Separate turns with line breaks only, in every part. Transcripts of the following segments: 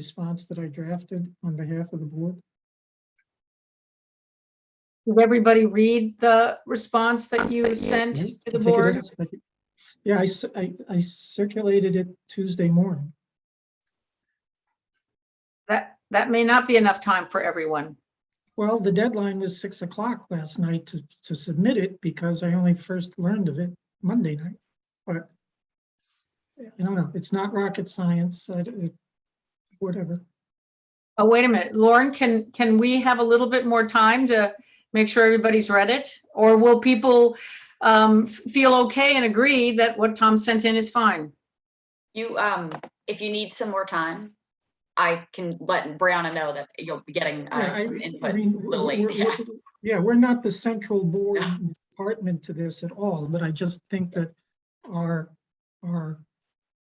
response that I drafted on behalf of the board?
Did everybody read the response that you Mm-hmm. sent
Yes,
to the
I think it
board?
is. I think- Yeah, I, cir- I, I circulated it Tuesday morning.
That, that may not be enough time for everyone.
Well, the deadline was six o'clock last night to, to submit it because I only first learned of it Monday night, but I don't know, it's not rocket science, I, don't- it- whatever.
Oh, wait a minute, Lauren, can, can we have a little bit more time to make sure everybody's read it? Or will people um, f- feel okay and agree that what Tom sent in is fine?
You, um, if you need some more time, I can let Brianna know that you'll be getting
Yeah,
uh,
I-
some
I
input.
mean,
little late,
we're- we're- Yeah, we're not the central board department to this at all, but I just think that our, our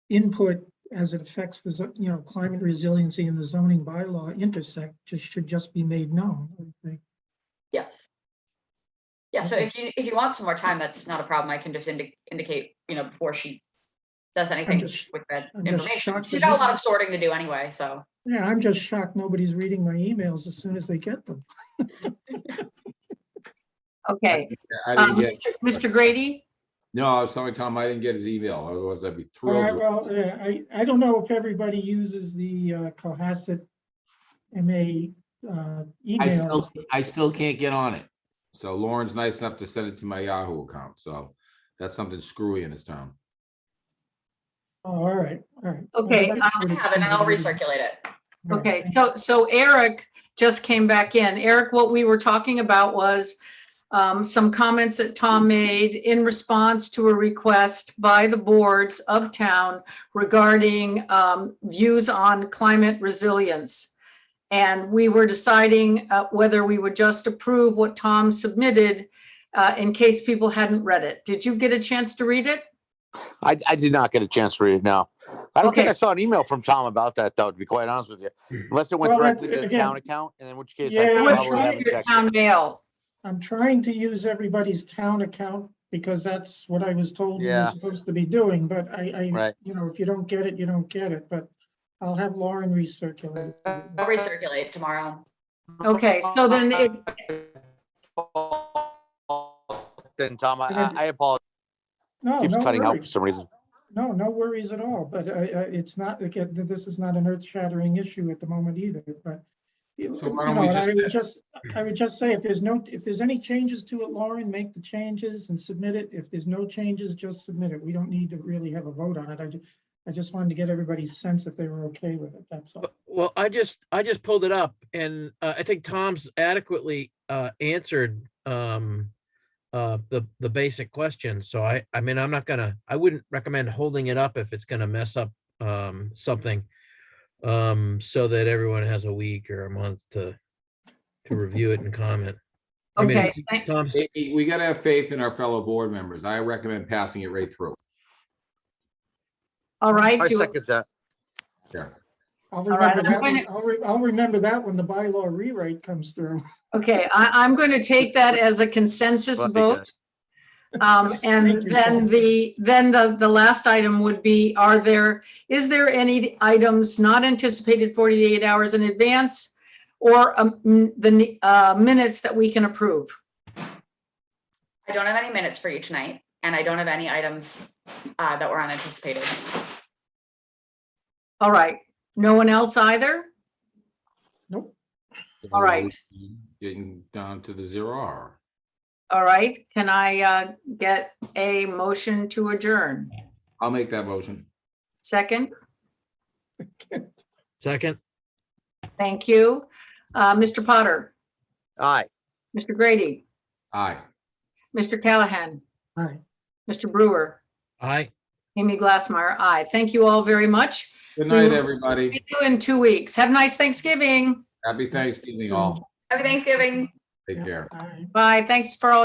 input as it affects the, zo- you know, climate resiliency and the zoning bylaw intersect just, should just be made known. I think.
Yes. Yeah, so
Okay.
if you, if you want some more time, that's not a problem. I can just indi- indicate, you know, before she does anything
just-
with that
I'm just
information.
shocked
She's
that
got a
you-
lot of sorting to do anyway, so.
Yeah, I'm just shocked nobody's reading my emails as soon as they get them.
Okay.
I
um,
didn't get,
Mr. Mr. Grady,
no, I was telling Tom I didn't get his email, otherwise I'd be
All right,
thrilled.
well, yeah, I, I don't know if everybody uses the uh, Cohasset MA uh,
I
email.
still, I still can't get on it. So Lauren's nice enough to send it to my Yahoo account, so that's something screwy in this town.
Oh, All right, all right.
Okay,
Well,
I
that's
I
what it
have it and I'll
seems to be.
recirculate it.
All right,
okay, so, so Eric just came back in. Eric, what we were talking about was um, some comments that Tom made in response to a request by the boards of town regarding um, views on climate resilience. And we were deciding uh, whether we would just approve what Tom submitted uh, in case people hadn't read it. Did you get a chance to read it?
I, I did not get a chance to read it now. I don't think
Okay.
I saw an email from Tom about that, though, to be quite honest with you. Unless it went
Well,
directly
that's-
to the
again-
town account, and in which case
Yeah,
I
I'm
probably
sure
haven't
Your
checked.
Town mail.
I'm trying to use everybody's town account because that's what I was told we were
Yeah.
supposed to be doing, but I, I,
Right.
you know, if you don't get it, you don't get it, but I'll have Lauren recirculate. it.
I'll recirculate tomorrow.
Okay, so then it,
Then, Tom, I- I,
Then-
I apologize.
No,
Keeps
no
cutting out for
worries.
some reason.
No, no worries at all, but I, I, it's not, again, th- this is not an earth shattering issue at the moment either, but. you-
So why
you
don't we
know, and I
just-
would just, I would just say, if there's no, if there's any changes to it, Lauren, make the changes and submit it. If there's no changes, just submit it. We don't need to really have a vote on it. I just, I just wanted to get everybody's sense that they were okay with it, that's all.
Well, I just, I just pulled it up and uh, I think Tom's adequately uh, answered um, uh, the, the basic question. So I, I mean, I'm not gonna, I wouldn't recommend holding it up if it's gonna mess up um, something. um, So that everyone has a week or a month to, to review it and comment. I mean,
okay, thank-
Tom,
Hey, We gotta have faith in our fellow board members. I recommend passing it right through.
all right.
I
do-
second that.
I'll
right,
remember
I'm
that,
gonna-
when- I'll, re- I'll remember that when the bylaw rewrite comes through.
Okay, I, I'm going to take that as a consensus
Well, I think
vote. Um, and
Thank you,
then
Paul.
the, then the, the last item would be, are there, is there any items not anticipated 48 hours in advance? Or um, m- the ne- uh, minutes that we can approve?
I don't have any minutes for you tonight and I don't have any items uh, that were unanticipated.
All right, no one else either?
Nope.
All right.
Getting down to the zero hour.
All right, can I uh, get a motion to adjourn?
I'll make that motion.
Second?
second,
Thank you. Uh, Mr. Potter,
Aye.
Mr. Grady,
Aye.
Mr. Callahan,
All right,
Mr. Brewer,
I,
Amy Glassmeyer, aye. Thank you all very much.
Good
We
night,
will-
everybody.
See you in two weeks. Have a nice Thanksgiving.
Happy Thanksgiving all.
Happy Thanksgiving.
Take care.
all right.
Bye. Thanks for all